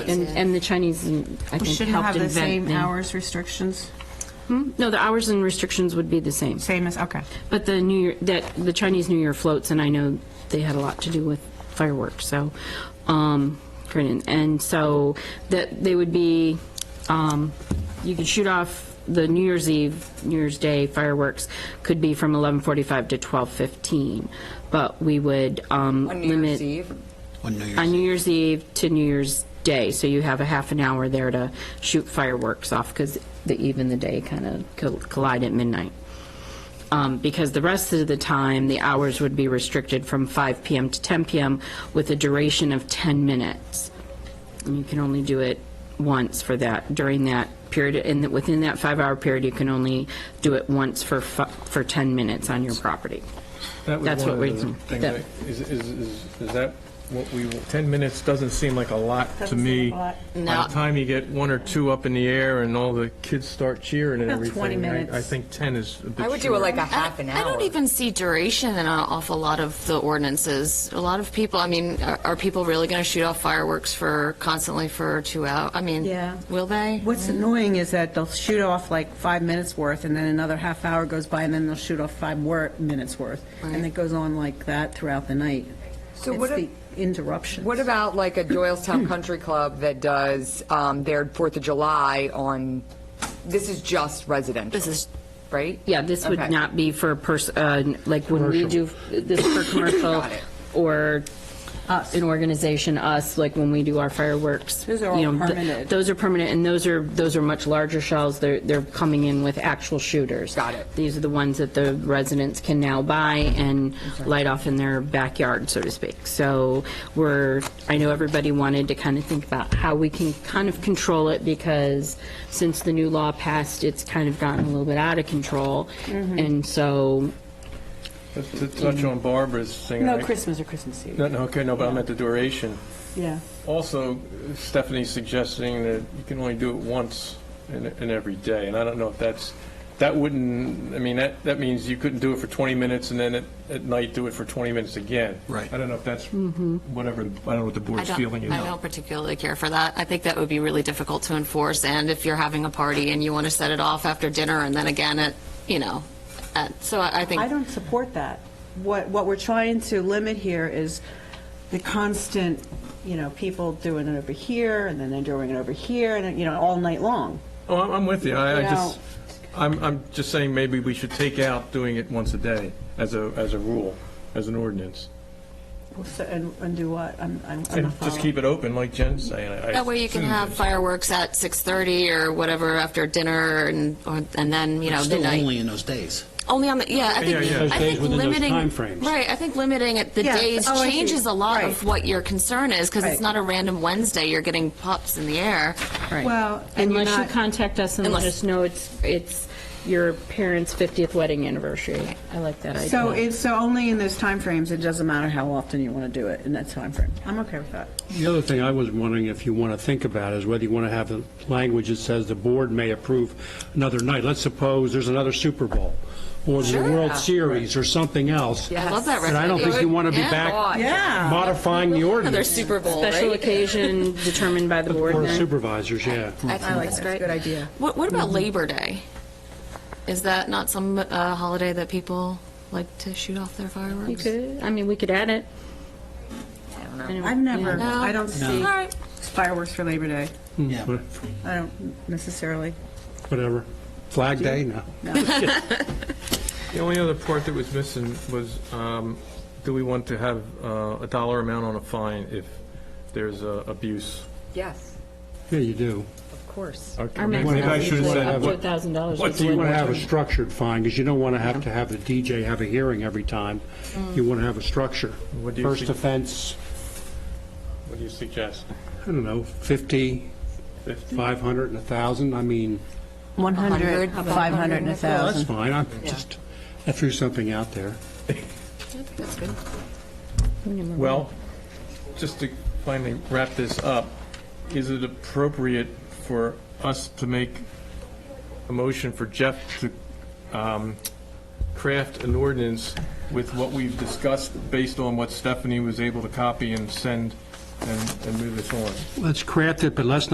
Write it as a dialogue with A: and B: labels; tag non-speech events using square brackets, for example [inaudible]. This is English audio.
A: and, and the Chinese, mm, I
B: We
A: think,
B: shouldn't have
A: helped
B: the
A: invent
B: same
A: the.
B: hours restrictions,
A: No, the hours and restrictions would be the same.
B: same as, okay.
A: But the New Year, that, the Chinese New Year floats, and I know they had a lot to do with fireworks, so, um, great. and and so that, they would be, um, you could shoot off the New Year's Eve, New Year's Day fireworks could be from 11:45 to 12:15, but we would, um,
C: On
A: limit.
C: New Year's Eve?
D: On New Year's
A: on New Year's Eve to New Year's Day, so you have a half an hour there to shoot fireworks off because the eve and the day kind of collide at midnight. Um, because the rest of the time, the hours would be restricted from 5 p.m. to 10 p.m. with a duration of 10 minutes. And you can only do it once for that, during that period, and that- within that five-hour period, you can only do it once for, fi- for 10 minutes on your property.
E: That was
A: That's
E: one
A: what
E: of the
A: we- that-
E: things that- Is, is, is is that what we, 10 minutes doesn't seem like a lot to
B: Doesn't seem
E: me.
B: like a lot.
E: By the time you get one or two up in the air and all the kids start cheering and
B: About
E: everything.
B: 20
E: I-
B: minutes.
E: I think 10 is a bit
C: I would do it
E: short.
C: like a half an hour.
F: I don't even see duration in an awful lot of the ordinances. A lot of people, I mean, are, are people really going to shoot off fireworks for constantly for two hours? I mean,
B: Yeah.
F: will they?
B: What's annoying is that they'll shoot off like five minutes worth, and then another half hour goes by, and then they'll shoot off five wor- minutes worth. And it goes on like that throughout the night.
C: So what
B: It's
C: ab-
B: the interruptions.
C: What about like a Doylestown Country Club that does um, their Fourth of July on, this is just residential?
F: This is-
C: Right?
A: Yeah, this would
C: Okay.
A: not be for a person, like when we do this for commercial
C: [coughs] Got it.
A: or uh, an organization, us, like when we do our fireworks.
B: Those are all
A: you know, th-
B: permitted.
A: Those are permanent, and those are, those are much larger shells. They're, they're coming in with actual shooters.
C: Got it.
A: These are the ones that the residents can now buy and light off in their backyard, so to speak. So we're, I know everybody wanted to kind of think about how we can kind of control it because since the new law passed, it's kind of gotten a little bit out of control. And so,
E: But To touch on Barbara's thing.
B: Mm. No
E: I-
B: Christmas or Christmas Eve.
E: No, no, okay, no, but I meant the duration.
B: Yeah.
E: Also, Stephanie's suggesting that you can only do it once in, in every day, and I don't know if that's, that wouldn't, I mean, that, that means you couldn't do it for 20 minutes and then at, at night do it for 20 minutes again.
D: Right.
E: I don't know if that's, whatever, I don't know what the
F: I
E: board's
F: don't,
E: feeling is.
F: I don't particularly care for that. I think that would be really difficult to enforce. And if you're having a party and you want to set it off after dinner and then again at, you know, at, so I, I think
B: I don't support that. What, what we're trying to limit here is the constant, you know, people doing it over here, and then they're doing it over here, and, you know, all night long.
E: Oh, I'm, I'm with you, I, I
B: You
E: just,
B: know-
E: I'm, I'm just saying maybe we should take out doing it once a day as a, as a rule, as an ordinance.
B: So- And, and do what? I'm, I'm I'm
E: And
B: not
E: just
B: following.
E: keep it open, like Jen's saying. I- I
F: That way you can
E: assume
F: have
E: that-
F: fireworks at 6:30 or whatever after dinner and, or- and then, you know,
D: Still
F: midnight.
D: only in those days.
F: Only on the, yeah, I
E: Yeah, yeah. Those
F: think, I
G: days
F: think
G: within those
F: limiting.
G: timeframes.
F: Right, I think limiting it, the
B: Yeah,
F: days
B: oh, I see.
F: changes a lot
B: Right.
F: of what your concern is, because
B: Right.
F: it's not a random Wednesday, you're getting pops in the air.
B: Well, and you're
A: unless you
B: not-
A: contact us and let
F: Unless-
A: us know it's, it's your parents' 50th wedding anniversary. I like that idea.
B: So it's, so only in those timeframes, it doesn't matter how often you want to do it in that timeframe. I'm okay with that.
G: The other thing I was wondering if you want to think about is whether you want to have the language that says the board may approve another night. Let's suppose there's another Super Bowl, or the World Series, or something else.
F: I love that
G: And I don't think you want to be back
B: Yeah.
G: modifying the
F: Another
G: ordinance.
F: Super Bowl,
A: Special
F: right?
A: occasion determined by the board.
G: Board of
A: then?
G: Supervisors, yeah.
F: I like that.
C: Good idea.
F: What, what
B: Mm-hmm.
F: about Labor Day? Is that not some uh, holiday that people like to shoot off their
A: We
F: fireworks?
A: could, I mean, we could add it.
B: I've never,
F: No?
B: I don't see
F: All right.
B: fireworks for Labor Day.
D: Yeah.
B: I don't necessarily.
G: Whatever. Flag Day, no.
E: The only other part that was missing was, um, do we want to have uh, a dollar amount on a fine if there's uh, abuse?
C: Yes,
G: Yeah, you do.
C: of course.
A: Our
E: Well, you
A: maximum
E: guys
A: is
E: should've
A: like
E: said
A: up to
E: what-
A: $1,000.
E: what
A: It's
E: do you
G: You
A: like
G: want to have a
A: what-
G: structured fine, because you don't want to have to have the DJ have a hearing every time. You want to have a structure.
E: What do you
G: First
E: think?
G: offense,
E: What do you suggest?
G: I don't know, 50, 500, and 1,000, I mean,
B: 100, 500, and
G: well, that's
B: 1,000.
G: fine, I just, I threw something out there.
E: Well, just to finally wrap this up, is it appropriate for us to make a motion for Jeff to um, craft an ordinance with what we've discussed based on what Stephanie was able to copy and send and, and move this on.
G: Let's craft it, but let's not